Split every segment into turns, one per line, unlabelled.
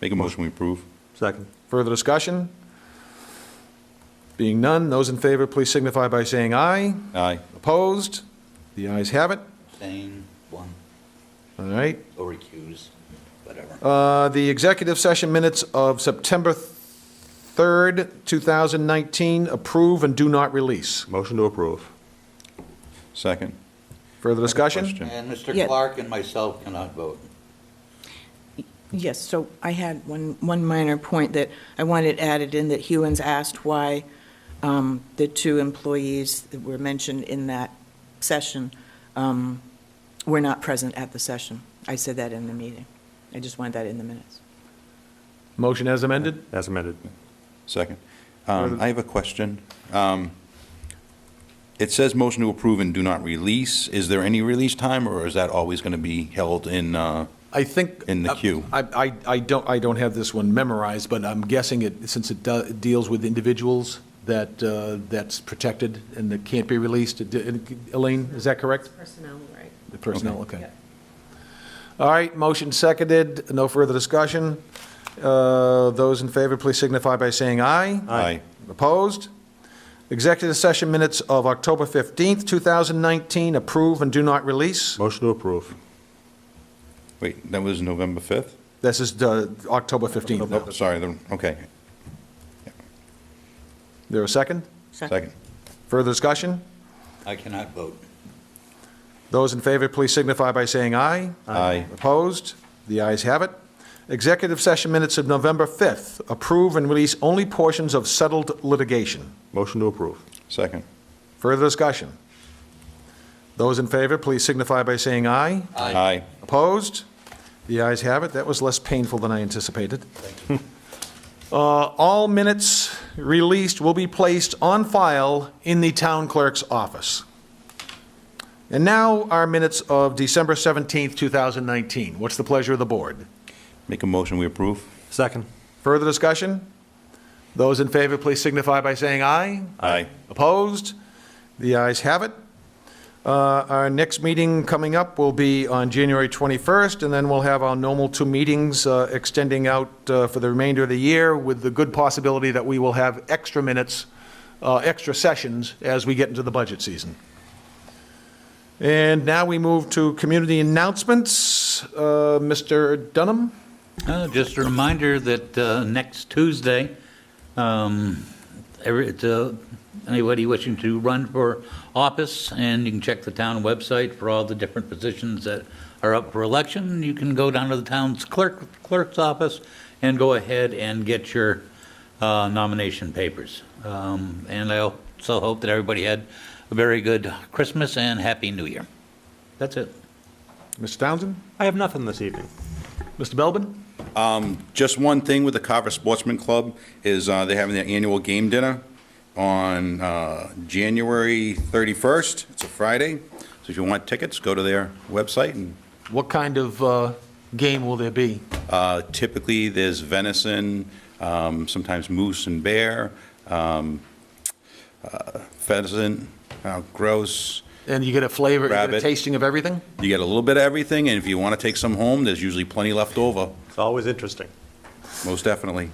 Make a motion, we approve.
Second.
Further discussion? Being none, those in favor, please signify by saying aye.
Aye.
Opposed? The ayes have it.
Abstain, one,
All right.
or recuse, whatever.
Uh, The executive session minutes of September 3rd, 2019, approve and do not release.
Motion to approve.
Second.
Further discussion?
Question.
And Mr.
Yeah.
Clark and myself cannot vote.
Yes, so I had one, one minor point that I wanted added in, that Hewens asked why um, the two employees that were mentioned in that session um, were not present at the session. I said that in the meeting. I just wanted that in the minutes.
Motion as amended?
As amended.
Second. Um, I have a question. Um, It says motion to approve and do not release. Is there any release time, or is that always going to be held in, uh,
I think.
In the queue.
I, I, I don't, I don't have this one memorized, but I'm guessing it, since it do- it deals with individuals that, uh, that's protected and that can't be released. Did- Elaine, is that correct?
Personnel, right.
The personnel, okay.
Yep.
All right, motion seconded, no further discussion. Uh, Those in favor, please signify by saying aye.
Aye.
Opposed? Executive session minutes of October 15th, 2019, approve and do not release.
Motion to approve.
wait, that was November 5th?
This is the October 15th.
Nope, sorry, the- okay.
There a second?
Second.
Further discussion?
I cannot vote.
Those in favor, please signify by saying aye.
Aye.
Opposed? The ayes have it. Executive session minutes of November 5th, approve and release only portions of settled litigation.
Motion to approve.
Second.
Further discussion? Those in favor, please signify by saying aye.
Aye.
Opposed? The ayes have it. That was less painful than I anticipated. Uh, All minutes released will be placed on file in the town clerk's office. And now our minutes of December 17th, 2019. What's the pleasure of the board?
Make a motion, we approve.
Second.
Further discussion? Those in favor, please signify by saying aye.
Aye.
Opposed? The ayes have it. Uh, Our next meeting coming up will be on January 21st, and then we'll have our normal two meetings uh, extending out uh, for the remainder of the year with the good possibility that we will have extra minutes, uh, extra sessions as we get into the budget season. And now we move to community announcements. Uh, Mr. Dunham?
Uh, Just a reminder that uh, next Tuesday, um, every- it's, uh, anybody wishing to run for office, and you can check the town website for all the different positions that are up for election. You can go down to the town's clerk clerk's office and go ahead and get your uh, nomination papers. Um, And I also hope that everybody had a very good Christmas and Happy New Year. That's it.
Mr. Townsend?
I have nothing this evening.
Mr. Belbin?
Just one thing with the Carver Sportsman Club is uh, they're having their annual game dinner on uh, January 31st. It's a Friday. So if you want tickets, go to their website. And
What kind of uh, game will there be?
uh, Typically, there's venison, um, sometimes moose and bear, um, uh, pheasant, uh, grouse.
And you get a flavor, you get a
Rabbit.
tasting of everything?
You get a little bit of everything, and if you want to take some home, there's usually plenty left over,
It's always interesting.
most definitely.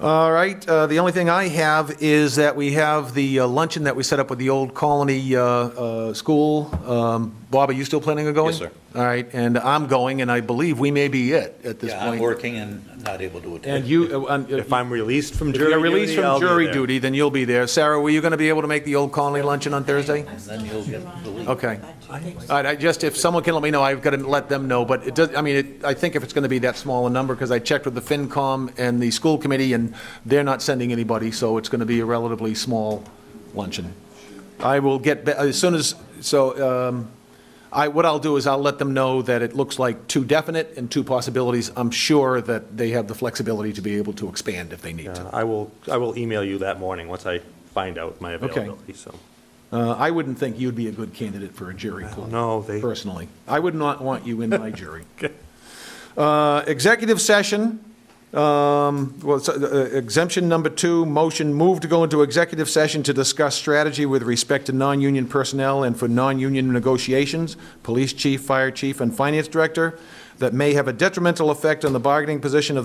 All right, uh, the only thing I have is that we have the uh, luncheon that we set up with the Old Colony uh, uh, School. Um, Bob, are you still planning on going?
Yes, sir.
All right, and I'm going, and I believe we may be it at this
Yeah, I'm
point.
working and not able to attend.
And you, uh, um,
If I'm released from
if you're
jury
released
duty,
from
I'll be
jury
there.
duty, then you'll be there. Sarah, were you going to be able to make the Old Colony luncheon on Thursday?
And then you'll get the lead.
Okay. All right, I just, if someone can let me know, I've got to let them know, but it does, I mean, it- I think if it's going to be that small a number, because I checked with the FinCom and the school committee, and they're not sending anybody, so it's going to be a relatively small luncheon. I will get, ba- as soon as, so um, I, what I'll do is I'll let them know that it looks like two definite and two possibilities. I'm sure that they have the flexibility to be able to expand if they need to.
Yeah, Uh, I will, I will email you that morning once I find out my availability, so.
Uh, I wouldn't think you'd be a good candidate for a jury pool.
No, they,
personally. I would not want you in my jury. Uh, Executive session, um, well, so, uh, exemption number two, motion move to go into executive session to discuss strategy with respect to non-union personnel and for non-union negotiations, police chief, fire chief, and finance director that may have a detrimental effect on the bargaining position of